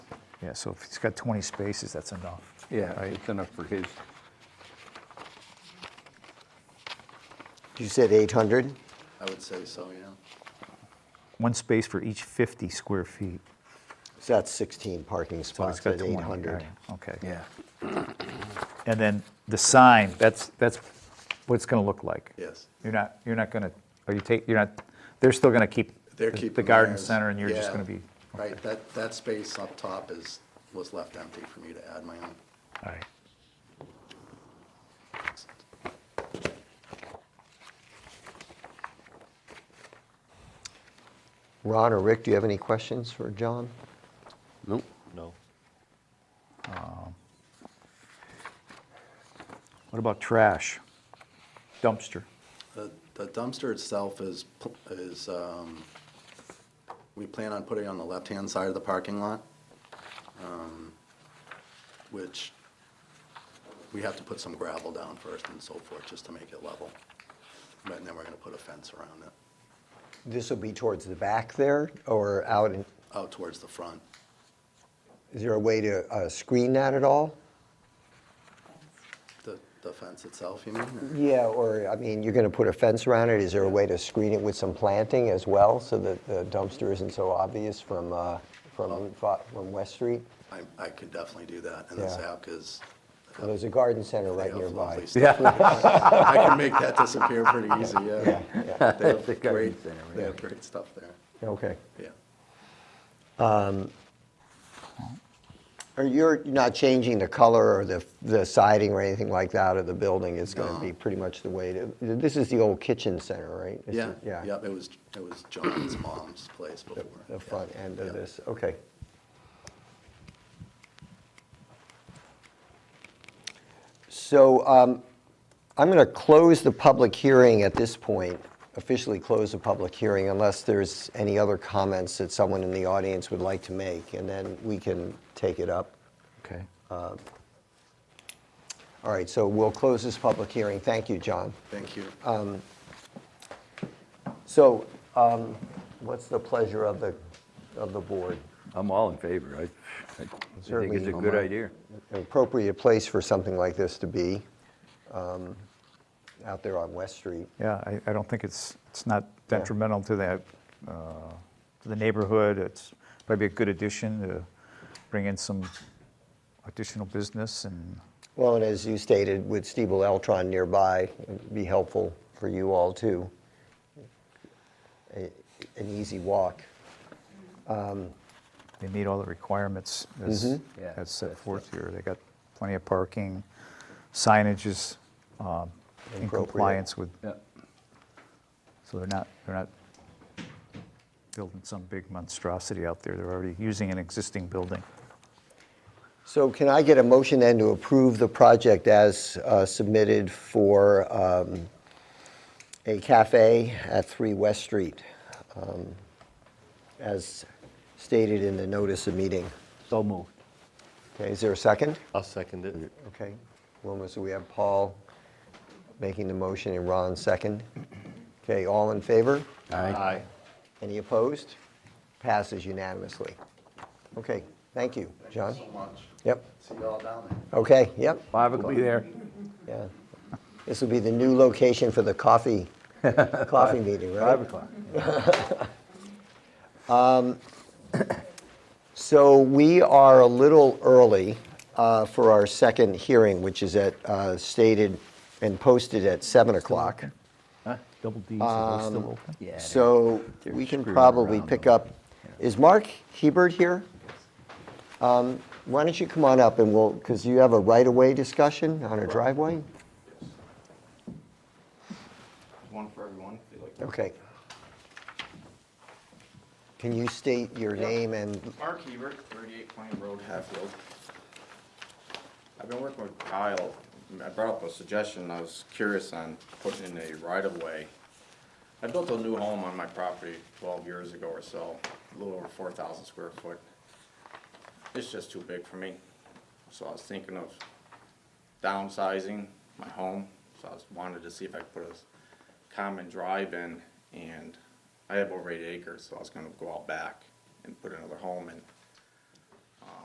Yeah, so if it's got 20 spaces, that's enough. Yeah, Right. it's enough for his. You said 800? I would say so, yeah. One space for each 50 square feet. So that's 16 parking So it's spots got at 20. 800. right, Okay. Yeah. And then the sign, that's, that's what it's gonna look like. Yes. You're not, you're not gonna, are you take, you're not, they're still gonna keep They're the- keeping. the garden theirs. center and you're just Yeah, gonna be. Right, that, that space up top is, was left empty for me to add my own. All right. Ron or Rick, do you have any questions for John? Nope. No. What about trash? Dumpster. The the dumpster itself is, pl- is, um, we plan on putting it on the left-hand side of the parking lot, um, which we have to put some gravel down first and so forth, just to make it level. And then we're gonna put a fence around it, This will be towards the back there or out, in- out towards the front. is there a way to uh, screen that at all? The the fence itself, you mean? Yeah, or, I mean, you're going to put a fence around it, is there a way to screen it with some planting as well so that the dumpster isn't so obvious from, uh, from Route fi- from West Street? I, I could definitely do that, and this Yeah. app is. Well, There's a garden center they right have nearby. lovely stuff. I can make that disappear pretty easy, yeah. They The have garden great, center, they yeah. have great stuff there, Okay. yeah. Are you're not changing the color or the, the siding or anything like that of the building? It's going to be pretty much the way to, this is the old kitchen center, right? This Yeah, is- yeah, it was, it was John's mom's place before. The front end Yeah. of this, okay. So um, I'm going to close the public hearing at this point, officially close the public hearing unless there's any other comments that someone in the audience would like to make, and then we can take it up. Okay. All right, so we'll close this public hearing. Thank you, John. Thank you. Uh, So um, what's the pleasure of the, of the board? I'm all in favor. I, I think it's Certainly. a good idea. An appropriate place for something like this to be, um, out there on West Street. Yeah, I, I don't think it's, it's not detrimental to that, uh, to the neighborhood. It's probably a good addition to bring in some additional business and, Well, and as you stated, with Steve Eltron nearby, it'd be helpful for you all too. A- An easy walk. they meet all the requirements as, Yeah, as set that's- forth here. They got plenty of parking, signage is um, in Appropriate. compliance with, Yeah. so they're not, they're not building some big monstrosity out there. They're already using an existing building. So can I get a motion then to approve the project as uh, submitted for um, a cafe at 3 West Street, um, as stated in the notice of meeting? So moved. Okay, is there a second? I'll second it. Okay, Wilma, so we have Paul making the motion and Ron second. Okay, all in favor? Aye. Any opposed? Passes unanimously. Okay, thank you, John. So much. Yep, See you all down there. okay, yep, Five o'clock. Be there. yeah. This will be the new location for the coffee, coffee meeting, right? Um, Five o'clock. So we are a little early uh, for our second hearing, which is at, uh, stated and posted at 7 o'clock. Double D's, are those still open? Um, Yeah. So they're we can screwing probably around pick over up, is Mark Hebert here? Um, Why don't you come on up and we'll, because you have a right-of-way discussion on a driveway? One for everyone, if you'd like. Okay. Can you state your name and, Mark Hebert, 38 Plain Road, Hatfield. I've been working with Kyle. I brought up a suggestion. I was curious on putting in a right-of-way. I built a new home on my property 12 years ago or so, a little over 4,000 square foot. It's just too big for me. So I was thinking of downsizing my home. So I was wanted to see if I could put a s- common drive in and I have over eight acres, so I was gonna go out back and put another home in.